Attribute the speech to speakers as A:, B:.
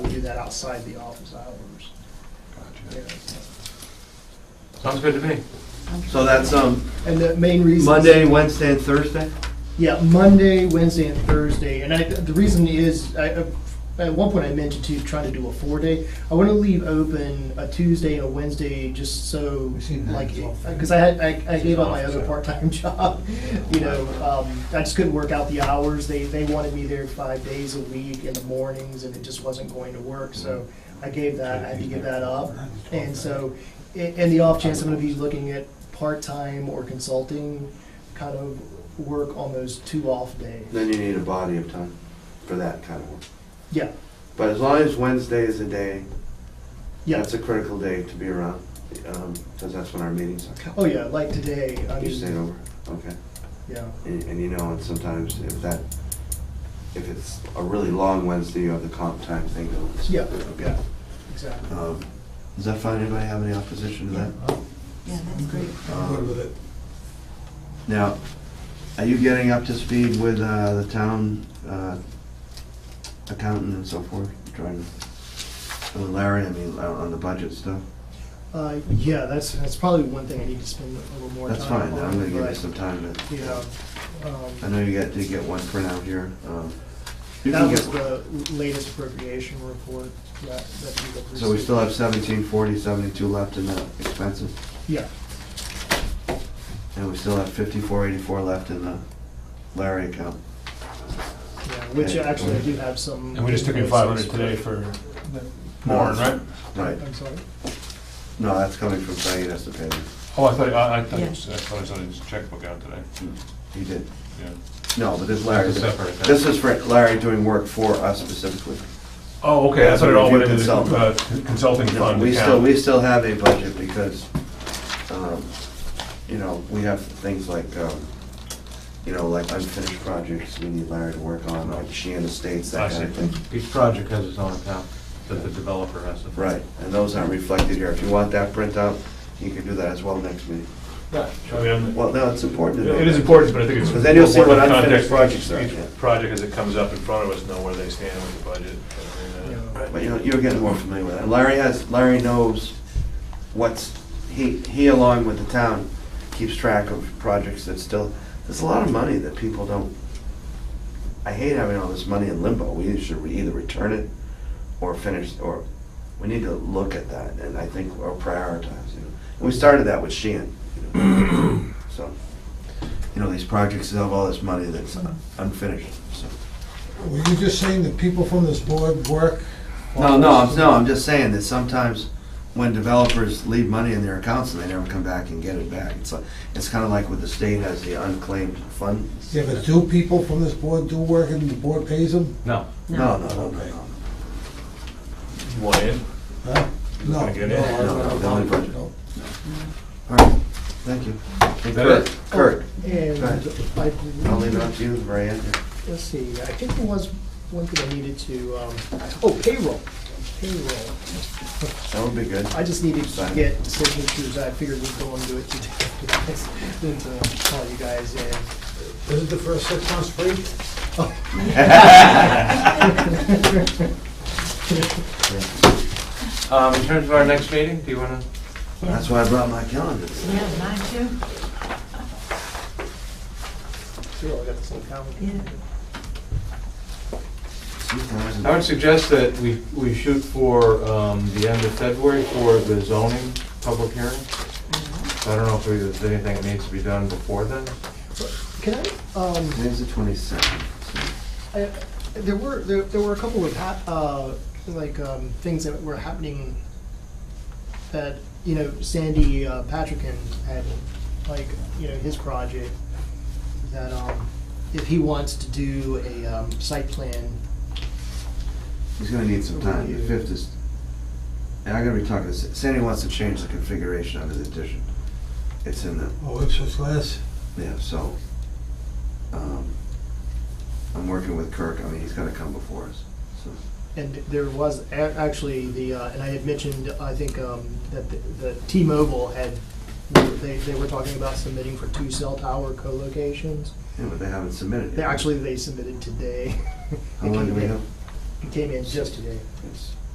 A: that outside the office hours.
B: Gotcha.
A: yeah.
C: Sounds good to me.
D: So that's um,
A: And the main reason.
D: Monday, Wednesday, and Thursday?
A: Yeah, Monday, Wednesday, and Thursday. And I, the reason is, I, I- at one point I mentioned to try to do a four-day. I want to leave open a Tuesday and a Wednesday just so,
B: We've seen that
A: like,
B: as well.
A: because I had, I, I gave up my
C: Office
A: other
C: hours.
A: part-time job. You know, um, I just couldn't work out the hours. They, they wanted me there five days a week in the mornings and it just wasn't going to work. So I gave that, I had to give that up. And so, i- in the off chance I'm going to be looking at part-time or consulting kind of work on those two off days.
D: Then you need a body of time for that kind of work.
A: Yeah,
D: But as long as Wednesday is a day,
A: yeah.
D: that's a critical day to be around, because that's when our meetings are.
A: Oh, yeah, like today, I
D: You stayed
A: mean,
D: over, okay.
A: yeah,
D: And and you know, and sometimes if that, if it's a really long Wednesday, you have the comp time thing going. so-
A: Yeah.
D: Okay.
A: exactly.
D: Um, Does that fine? Anybody have any opposition to that? Um,
E: Yeah, that's great.
B: I'm good with it.
D: Now, are you getting up to speed with uh, the town uh, accountant and so forth? Trying to, uh, Larry, I mean, uh, on the budget stuff?
A: Uh, yeah, that's, that's probably one thing I need to spend a little more time
D: That's
A: on.
D: fine, I'm gonna give you
A: but,
D: some time to,
A: You know,
D: I
A: um,
D: know you got, did get one printout here. um, You
A: that
D: can
A: was
D: get,
A: the latest appropriation report that, that we got.
D: so we still have seventeen forty, seventy-two left in the expenses,
A: Yeah,
D: and we still have fifty-four eighty-four left in the Larry account.
A: yeah, which
D: Okay.
A: actually I do have some.
C: And we just took in five hundred today for Warren, right?
D: Right,
A: I'm sorry?
D: no, that's coming from Saeed, that's the payment,
C: Oh, I thought, I, I thought,
E: Yeah.
C: I thought I saw his checkbook out today,
D: he did.
C: yeah.
D: No, but this Larry,
C: That's a separate account.
D: this is for Larry doing work for us specifically.
C: Oh, okay, I thought it all went into the
D: Consultant.
C: uh, consulting
D: No,
C: fund
D: we still,
C: account.
D: we still have a budget because, um, you know, we have things like, um, you know, like unfinished projects we need Larry to work on, like Sheehan Estates,
C: I
D: that kind of
C: see.
D: thing.
F: Each project has its own account that the developer has to.
D: Right, and those aren't reflected here. If you want that printout, you can do that as well next meeting.
C: I mean,
D: Well, no, it's important to know.
C: It is
D: that.
C: important, but I think it's.
D: Because then you'll see what
C: important
D: unfinished
C: context.
D: projects are,
C: Each
D: yeah.
C: project as it comes up in front of us, know where they stand with the budget. I mean, uh,
A: Yeah.
D: But you know, you're getting more familiar with it. Larry has, Larry knows what's, he, he along with the town keeps track of projects that still, there's a lot of money that people don't, I hate having all this money in limbo. We should either return it or finish, or, we need to look at that and I think, or prioritize, you know. And we started that with Sheehan, you know. so. You know, these projects have all this money that's unfinished, so.
B: Were you just saying that people from this board work?
D: No, no, I'm, no, I'm just saying that sometimes when developers leave money in their accounts and they never come back and get it back, it's like, it's kinda like what the state has the unclaimed fund.
B: Yeah, but do people from this board do work and the board pays them?
C: No.
D: No, no, no, no, no,
C: You want in?
B: Huh? No.
C: Gonna get it?
B: I don't
D: No, no,
B: know.
D: the only budget.
B: No.
D: All right, thank you. And
C: That it?
D: Kurt, Kurt,
A: And I
D: I'll leave
A: believe,
D: it up to you, Brian.
A: let's see, I think there was one thing I needed to, um, oh, payroll, payroll.
D: That would be good.
A: I just needed to
D: Sign.
A: get signatures, I figured we'd go and do it today, uh, then to call you guys in.
B: Is it the first six months free?
C: Um, in terms of our next meeting, do you wanna?
D: That's why I brought my calendar.
E: Yeah, mine too.
A: See, I got the same calendar.
E: Yeah.
F: I would suggest that we, we shoot for um, the end of February for the zoning public hearing. I don't know if there's anything that needs to be done before then.
A: Can I, um,
D: Today's the twenty-second.
A: I- there were, there, there were a couple of, hap- uh, like, um, things that were happening that, you know, Sandy uh, Patrickin had, like, you know, his project, that, um, if he wants to do a, um, site plan,
D: He's gonna need some time, the fifth is, and I'm gonna be talking, to Sa- Sandy wants to change the configuration of his addition. It's in the,
B: Oh, it's just less.
D: yeah, so, um, I'm working with Kirk, I mean, he's gonna come before us, so.
A: and there was a- actually the, uh, and I had mentioned, I think, um, that the, the T-Mobile had, they, they were talking about submitting for two cell tower co-locations.
D: Yeah, but they haven't submitted
A: They,
D: yet.
A: actually, they submitted today.
D: How long do we have?
A: It came in just today.
D: It's-